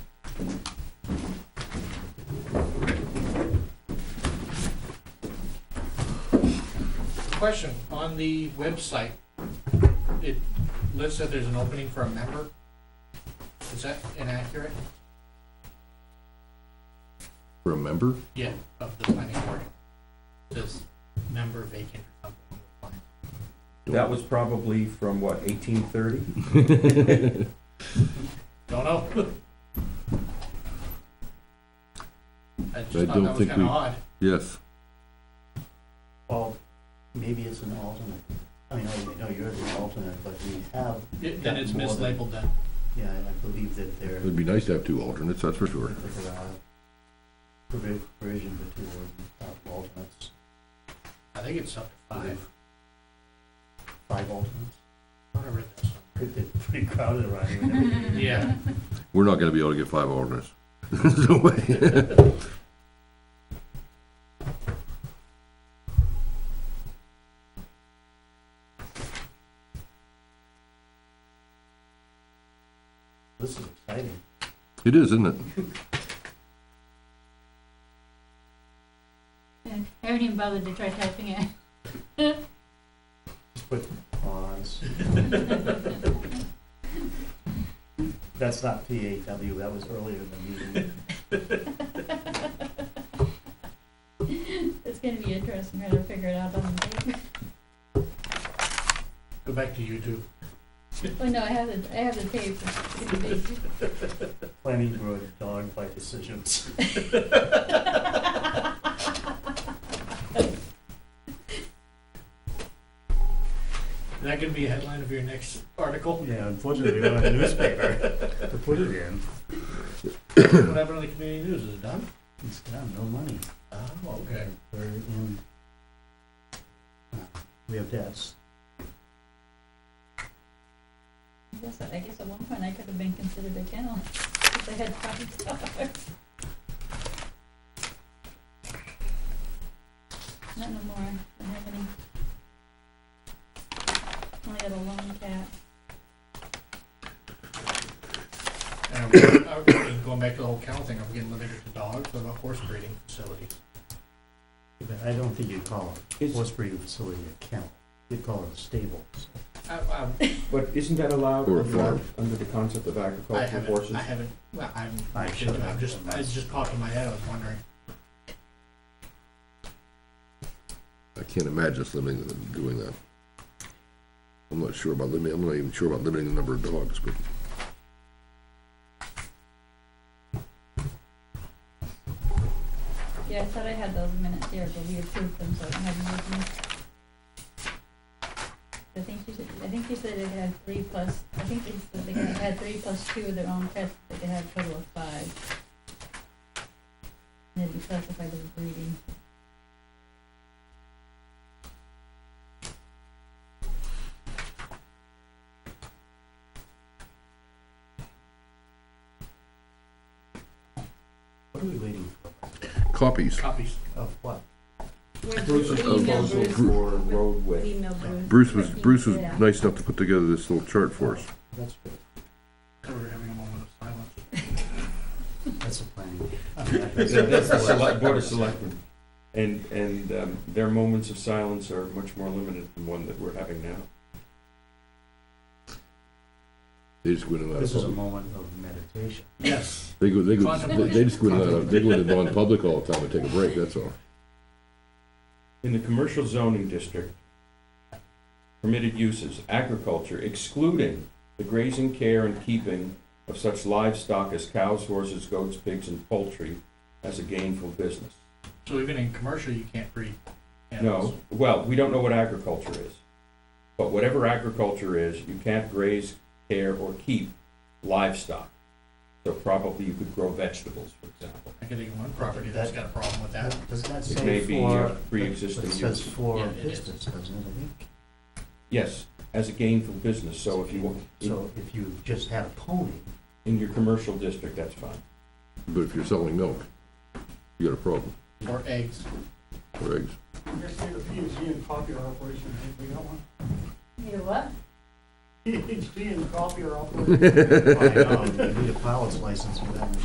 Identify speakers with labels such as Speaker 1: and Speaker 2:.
Speaker 1: question, on the website, it lists that there's an opening for a member. Is that inaccurate?
Speaker 2: Remember?
Speaker 1: Yeah, of the planning board. Says member vacant or something.
Speaker 3: That was probably from what, eighteen thirty?
Speaker 1: Don't know. I
Speaker 2: I
Speaker 1: just thought
Speaker 2: don't
Speaker 1: that was
Speaker 2: think
Speaker 1: kinda
Speaker 2: we-
Speaker 1: odd.
Speaker 2: Yes.
Speaker 4: Well, maybe it's an alternate. I mean, I know you're the alternate, but we have,
Speaker 1: It- Then it's
Speaker 4: More than-
Speaker 1: mislabeled then.
Speaker 4: yeah, I believe that there,
Speaker 2: It'd be nice to have two alternates, that's for sure.
Speaker 4: that there are provi- provision for two or, uh, alternates,
Speaker 1: I think it's up to five.
Speaker 4: five alternates.
Speaker 1: I thought I read that somewhere.
Speaker 4: Pretty- Pretty crowded around here. and everything.
Speaker 1: Yeah,
Speaker 2: We're not gonna be able to get five alternates. There's no way.
Speaker 4: This is exciting.
Speaker 2: It is, isn't it?
Speaker 5: I haven't even bothered to try typing it.
Speaker 4: Just put pause. That's not PAW, that was earlier in the meeting.
Speaker 5: It's gonna be interesting trying to figure it out on tape.
Speaker 1: go back to YouTube.
Speaker 5: Well, Oh, no, I have the, I have the tape. It's gonna be-
Speaker 4: Planning board dog by decisions.
Speaker 1: Is that gonna be a headline of your next article?
Speaker 4: Yeah, unfortunately, we don't have a newspaper to put it in.
Speaker 1: What happened on the community news? Is it done?
Speaker 4: It's got no money.
Speaker 1: Oh, okay.
Speaker 4: We're in. uh, We have debts.
Speaker 5: I guess, I guess at one point I could have been considered a kennel if I had five dollars. Not no more. I don't have any. Only got a lone cat.
Speaker 1: And I'm, I'm getting- going back to the whole kennel thing, I'm getting limited to dogs, what about horse breeding facilities?
Speaker 4: But I don't think you'd call a
Speaker 3: It's-
Speaker 4: horse breeding facility a kennel. You'd call it a stable.
Speaker 1: I, I,
Speaker 3: But isn't that allowed
Speaker 2: Or a
Speaker 3: under,
Speaker 2: farm.
Speaker 3: under the concept of
Speaker 1: I
Speaker 3: agricultural
Speaker 1: haven't,
Speaker 3: horses?
Speaker 1: I haven't, well, I'm,
Speaker 4: I
Speaker 1: I'm
Speaker 4: should've
Speaker 1: just,
Speaker 4: done that.
Speaker 1: it just popped in my head, I was wondering.
Speaker 2: I can't imagine us limiting them doing that. I'm not sure about limiting, I'm not even sure about limiting the number of dogs, but
Speaker 5: Yeah, I thought I had those minutes here, but we approved them, so I don't have them with me. I think you said, I think you said they had three plus, I think you said they had three plus two of their own pets, they could have a total of five. And then we classified as breeding.
Speaker 4: What are we waiting
Speaker 2: copies.
Speaker 1: Copies.
Speaker 4: for? Of what?
Speaker 3: Bruce is
Speaker 5: Email
Speaker 3: proposal
Speaker 5: Bruce.
Speaker 3: for roadway.
Speaker 5: Email Bruce.
Speaker 2: Bruce was, Bruce was
Speaker 5: Yeah.
Speaker 2: nice enough to put together this little chart for us.
Speaker 4: That's good.
Speaker 1: We were having a moment of silence.
Speaker 4: That's a planning.
Speaker 3: That- That's the select, board of selectmen. And, and um, their moments of silence are much more limited than one that we're having now.
Speaker 2: They just went in out
Speaker 4: This is a
Speaker 2: of,
Speaker 4: moment of meditation.
Speaker 1: Yes.
Speaker 2: they go, they go, they just went in out of, they go into non-public all the time and take a break, that's all.
Speaker 3: In the commercial zoning district, permitted uses, agriculture excluding the grazing, care, and keeping of such livestock as cows, horses, goats, pigs, and poultry as a gainful business.
Speaker 1: So even in commercial, you can't breed animals.
Speaker 3: No, well, we don't know what agriculture is. But whatever agriculture is, you can't graze, care, or keep livestock. So probably you could grow vegetables, for example.
Speaker 1: I could think of one property that's got a problem with that.
Speaker 4: Does that
Speaker 3: It may
Speaker 4: say
Speaker 3: be uh,
Speaker 4: for?
Speaker 3: pre-existing
Speaker 4: It says
Speaker 3: use.
Speaker 4: for
Speaker 1: Yeah, it is.
Speaker 4: business, doesn't it? I think?
Speaker 3: Yes, as a gainful business, so if you, want- in-
Speaker 4: So if you just had a pony,
Speaker 3: in your commercial district, that's fine.
Speaker 2: But if you're selling milk, you got a problem,
Speaker 1: Or eggs.
Speaker 2: or eggs.
Speaker 6: You're saying the PhD in copier operation, I think we got one.
Speaker 5: You what?
Speaker 6: PhD in copier operation.
Speaker 4: I know, you need a pilot's license for that.